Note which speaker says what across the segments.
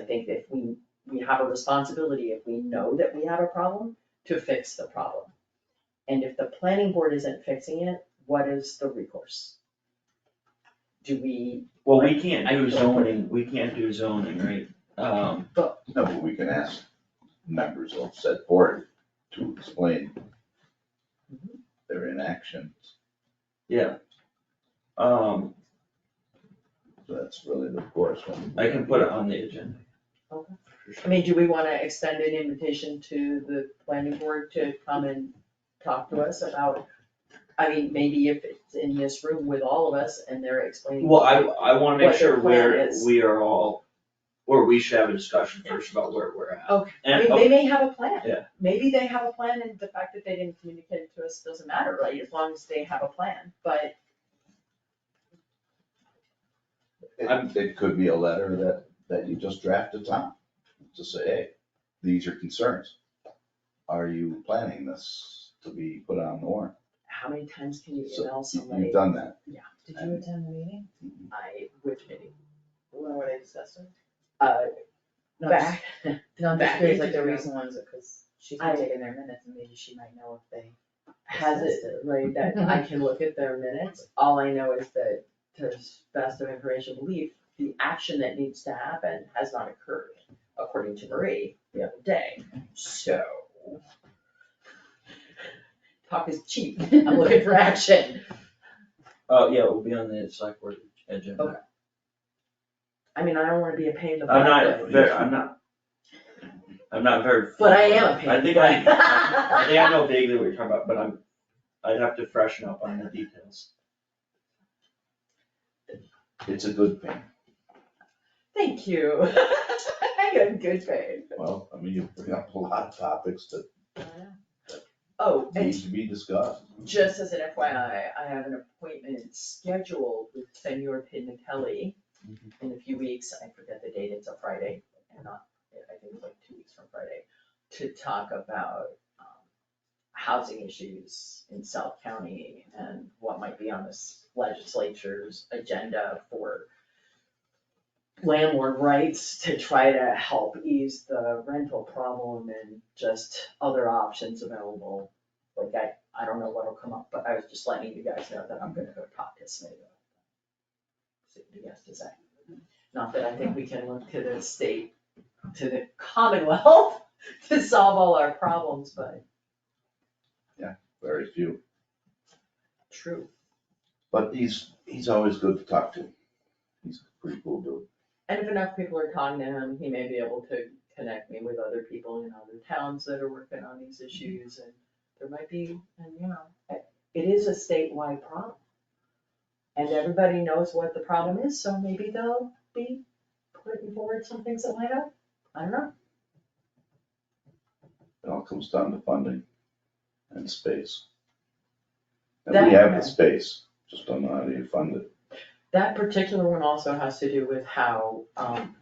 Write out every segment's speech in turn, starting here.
Speaker 1: think that we, we have a responsibility, if we know that we have a problem, to fix the problem. And if the planning board isn't fixing it, what is the recourse? Do we,
Speaker 2: Well, we can't do zoning, we can't do zoning, right? Um,
Speaker 3: No, but we can ask members of said board to explain their inactions.
Speaker 2: um,
Speaker 3: So That's really the course one.
Speaker 2: I can put it on the agenda.
Speaker 1: Okay.
Speaker 2: For
Speaker 1: I
Speaker 2: sure.
Speaker 1: mean, do we wanna extend an invitation to the planning board to come and talk to us about, I mean, maybe if it's in this room with all of us and they're explaining.
Speaker 2: Well, I, I wanna make
Speaker 1: What your
Speaker 2: sure
Speaker 1: plan
Speaker 2: where
Speaker 1: is.
Speaker 2: we are all, or we should have a discussion first about where we're at.
Speaker 1: Okay. I
Speaker 2: And-
Speaker 1: mean, they may have a plan.
Speaker 2: Yeah.
Speaker 1: Maybe they have a plan and the fact that they didn't communicate it to us doesn't matter, right, as long as they have a plan, but
Speaker 2: I'm-
Speaker 3: It, it could be a letter that, that you just draft to Tom, to say, hey, these are concerns. Are you planning this to be put on the warrant?
Speaker 1: how many times can you
Speaker 3: So,
Speaker 1: email
Speaker 3: You-
Speaker 1: somebody?
Speaker 3: You've done that.
Speaker 1: Yeah,
Speaker 4: Did you attend the meeting?
Speaker 1: I, which meeting?
Speaker 4: When were they discussing?
Speaker 1: Uh,
Speaker 4: No, just-
Speaker 1: back,
Speaker 4: No, I'm just
Speaker 1: back
Speaker 4: curious, like
Speaker 1: ages
Speaker 4: the
Speaker 1: ago.
Speaker 4: reason was, because she's been
Speaker 1: I-
Speaker 4: taking their minutes and maybe she might know if they.
Speaker 1: has it, right, that I can look at their minutes, all I know is that to best of information belief, the action that needs to happen has not occurred, according to Marie the other day, so. Talk is cheap, I'm looking for action.
Speaker 2: Oh, yeah, it will be on the select board agenda.
Speaker 1: Okay. I mean, I don't wanna be a pain in the butt.
Speaker 2: I'm not,
Speaker 1: but-
Speaker 2: very- I'm not, I'm not very.
Speaker 1: But I am a pain.
Speaker 2: I think I, I think I know vaguely what you're talking about, but I'm, I'd have to freshen up on the details.
Speaker 3: It's a good thing.
Speaker 1: Thank you. I am good faith.
Speaker 3: Well, I mean, you bring up a lot of topics that
Speaker 1: Oh,
Speaker 3: need
Speaker 1: and
Speaker 3: to be discussed.
Speaker 1: just as an FYI, I have an appointment scheduled with Senor Pinnatelli in a few weeks. I forget the date, it's a Friday, and not, I think it's like two weeks from Friday, to talk about um, housing issues in South County and what might be on this legislature's agenda for landlord rights to try to help ease the rental problem and just other options available. Like I, I don't know what'll come up, but I was just letting you guys know that I'm gonna go talk to Smitty. about it. See what he has to say. Not that I think we can look to the state, to the Commonwealth to solve all our problems, but
Speaker 3: Very few.
Speaker 1: true.
Speaker 3: But he's, he's always good to talk to. He's a pretty cool dude.
Speaker 1: And if enough people are talking to him, he may be able to connect me with other people in other towns that are working on these issues and there might be, and you know, it- it is a statewide problem. And everybody knows what the problem is, so maybe they'll be putting forward some things that might help. I don't know.
Speaker 3: It all comes down to funding and space. And
Speaker 1: That-
Speaker 3: we have the space, just don't know how to fund it.
Speaker 1: That particular one also has to do with how, um,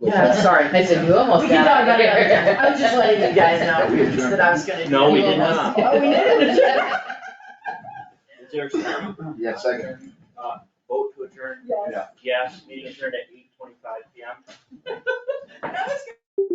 Speaker 1: yeah, sorry.
Speaker 4: I said, you
Speaker 1: We
Speaker 4: almost
Speaker 1: can
Speaker 4: got
Speaker 1: talk about it
Speaker 4: it."
Speaker 1: another time. I was just letting you guys know that I was gonna. do
Speaker 2: No, we
Speaker 1: that.
Speaker 2: did not.
Speaker 1: Oh, we did?
Speaker 2: Is there some
Speaker 3: Yeah, second.
Speaker 2: vote to adjourn?
Speaker 1: Yes.
Speaker 2: Yes, meeting adjourned at eight twenty-five PM.
Speaker 1: I was